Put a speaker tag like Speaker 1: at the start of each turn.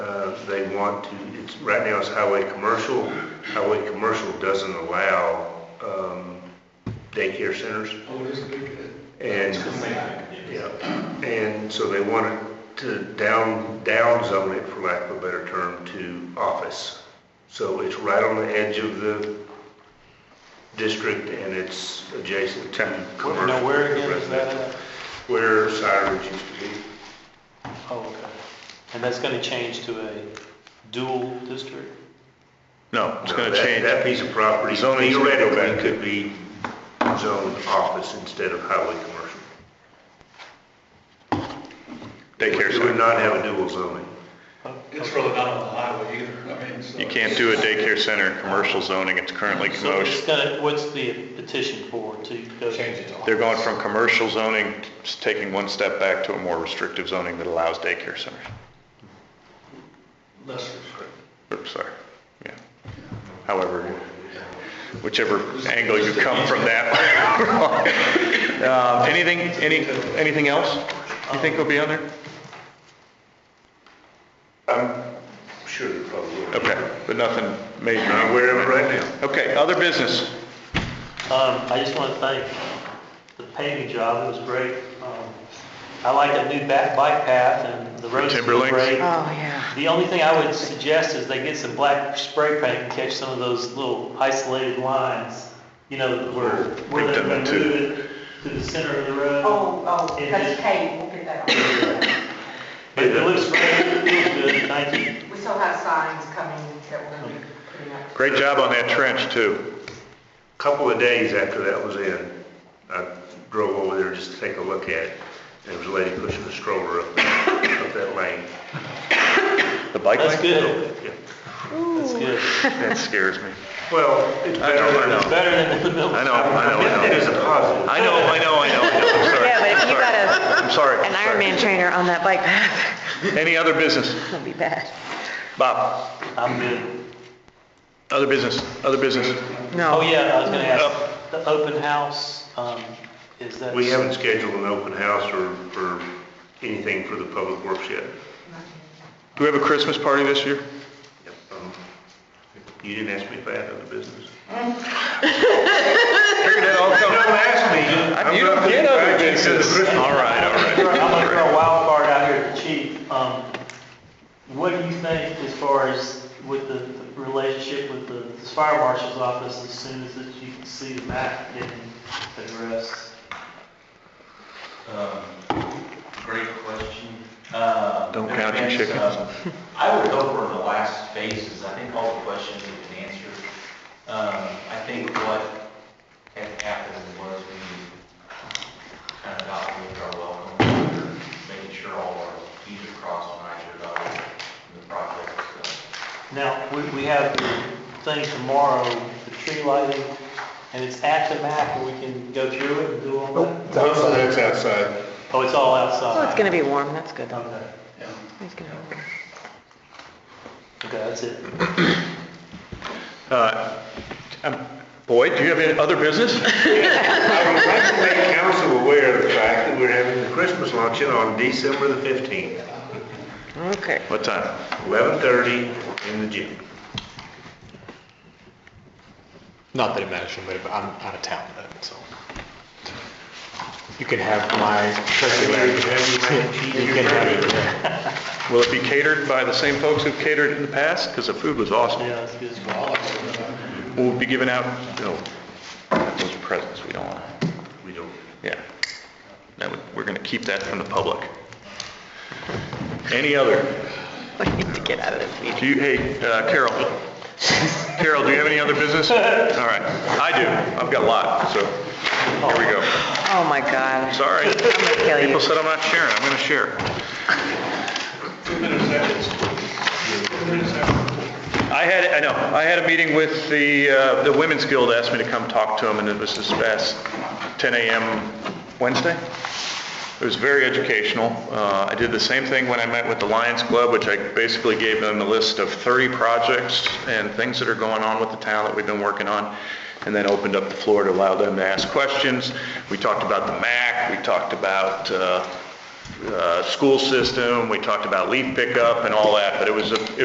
Speaker 1: Uh, they want to, it's, right now it's highway commercial. Highway commercial doesn't allow, um, daycare centers.
Speaker 2: Oh, this is good.
Speaker 1: And, yeah, and so they wanted to down, downzone it, for lack of a better term, to office. So it's right on the edge of the district and it's adjacent to commercial.
Speaker 3: Now, where again is that at?
Speaker 1: Where Cyrus used to be.
Speaker 3: Oh, okay. And that's gonna change to a dual district?
Speaker 4: No, it's
Speaker 1: No,
Speaker 4: gonna
Speaker 1: that-
Speaker 4: change.
Speaker 1: That piece of property
Speaker 4: Zoning's gonna go
Speaker 1: theoretically
Speaker 4: back.
Speaker 1: could be zoned office instead of highway commercial.
Speaker 4: Daycare
Speaker 1: We would
Speaker 4: center.
Speaker 1: not have a dual zoning.
Speaker 3: Oh,
Speaker 2: It's really not on the highway either, I mean, so.
Speaker 4: You can't do a daycare center in commercial zoning. It's currently
Speaker 3: So it's
Speaker 4: commotion.
Speaker 3: gonna, what's the petition for to go? Change it
Speaker 4: They're going from commercial zoning, s- taking one step back to a more restrictive zoning that allows daycare centers.
Speaker 2: Less restrictive.
Speaker 4: Oops, sorry. Yeah. However, whichever angle you come from that. Um, Anything, any, anything else you think will be on there?
Speaker 1: I'm sure there probably will.
Speaker 4: Okay, but nothing major.
Speaker 1: Not aware of it right now.
Speaker 4: Okay, other business.
Speaker 3: Um, I just want to thank the paving job, it was great. Um, I like that new back bike path and the roads are
Speaker 4: Timberlinks?
Speaker 3: great.
Speaker 5: Oh, yeah.
Speaker 3: The only thing I would suggest is they get some black spray paint and catch some of those little isolated lines, you know, where, where
Speaker 4: We've
Speaker 3: they
Speaker 4: done that
Speaker 3: move
Speaker 4: too.
Speaker 3: it to the center of the road.
Speaker 6: Oh, oh,
Speaker 3: It
Speaker 6: that's
Speaker 3: is-
Speaker 6: paid, we'll get that on.
Speaker 3: But it looks great, it feels good, thank you.
Speaker 6: We still have signs coming that we're gonna be putting up.
Speaker 4: Great job on that trench, too.
Speaker 1: Couple of days after that was in, I drove over there just to take a look at it. And there was a lady pushing a stroller up, up that lane.
Speaker 4: The bike lane?
Speaker 3: That's good,
Speaker 1: Yeah.
Speaker 3: that's good.
Speaker 4: That scares me.
Speaker 1: Well, it's
Speaker 4: I
Speaker 1: better
Speaker 4: know, I
Speaker 1: than,
Speaker 4: know.
Speaker 3: Better than the middle.
Speaker 4: I know, I know, I
Speaker 1: it
Speaker 4: know.
Speaker 1: is a positive.
Speaker 4: I know, I know, I know, I know. I'm sorry.
Speaker 5: Yeah, but if you got a-
Speaker 4: I'm sorry.
Speaker 5: An Ironman trainer on that bike path,
Speaker 4: Any other business?
Speaker 5: that'd be bad.
Speaker 4: Bob,
Speaker 3: I'm good.
Speaker 4: other business, other business?
Speaker 5: No.
Speaker 3: Oh, yeah, I was gonna ask, the open house, um, is that?
Speaker 1: We haven't scheduled an open house or, or anything for the public works yet.
Speaker 4: Do we have a Christmas party this year?
Speaker 1: Um, You didn't ask me if I had other business.
Speaker 4: Figured it all
Speaker 1: Don't
Speaker 4: come-
Speaker 1: ask me.
Speaker 4: You don't get other business. All right, all
Speaker 3: I'm
Speaker 4: right.
Speaker 3: gonna throw a wild card out here at the chief. Um, what do you think as far as with the the relationship with the the fire marshal's office as soon as that you can see the map getting addressed?
Speaker 7: Um, Great question. Uh,
Speaker 4: Don't count your
Speaker 7: there's, uh, I would go for the last phases. I think all the questions have been answered. Um, I think what had happened was we kind of outlived our welcome, letter, making sure all our Ts are crossed and Is are dotted in the project. So,
Speaker 3: Now, we, we have the thing tomorrow, the tree lighting, and it's at the map and we can go through it and do all that?
Speaker 4: That's outside.
Speaker 3: Oh, it's all outside?
Speaker 5: So it's gonna be warm, that's good though.
Speaker 3: Okay,
Speaker 5: It's gonna be warm.
Speaker 3: okay, that's it.
Speaker 4: Boyd, do you have any other business?
Speaker 1: I would like to make council aware of the fact that we're having the Christmas luncheon on December the 15th,
Speaker 5: Okay.
Speaker 4: What time?
Speaker 1: 11:30 in the gym.
Speaker 8: Not that it matters to me, but I'm out of town then, so. You can have my turkey leg. You can have it.
Speaker 4: Will it be catered by the same folks who've catered in the past? Because the food was awesome.
Speaker 3: Yeah, that's good.
Speaker 4: Will it be given out, no, those are presents, we don't want to.
Speaker 1: We don't,
Speaker 4: Yeah. That would, we're gonna keep that from the public. Any other?
Speaker 5: I need to get out of this meeting.
Speaker 4: Do you, hey, uh, Carol? Carol, do you have any other business? All right, I do. I've got a lot, so here we go.
Speaker 5: Oh, my God.
Speaker 4: Sorry.
Speaker 5: I'm gonna kill you.
Speaker 4: People said I'm not sharing, I'm gonna share. I had, I know, I had a meeting with the, uh, the Women's Guild asked me to come talk to them, and it was this past 10 AM Wednesday. It was very educational. Uh, I did the same thing when I met with the Lions Club, which I basically gave them a list of 30 projects and things that are going on with the town that we've been working on, and then opened up the floor to allow them to ask questions. We talked about the MAC, we talked about uh, uh, school system, we talked about leaf pickup and all that, but it was, a-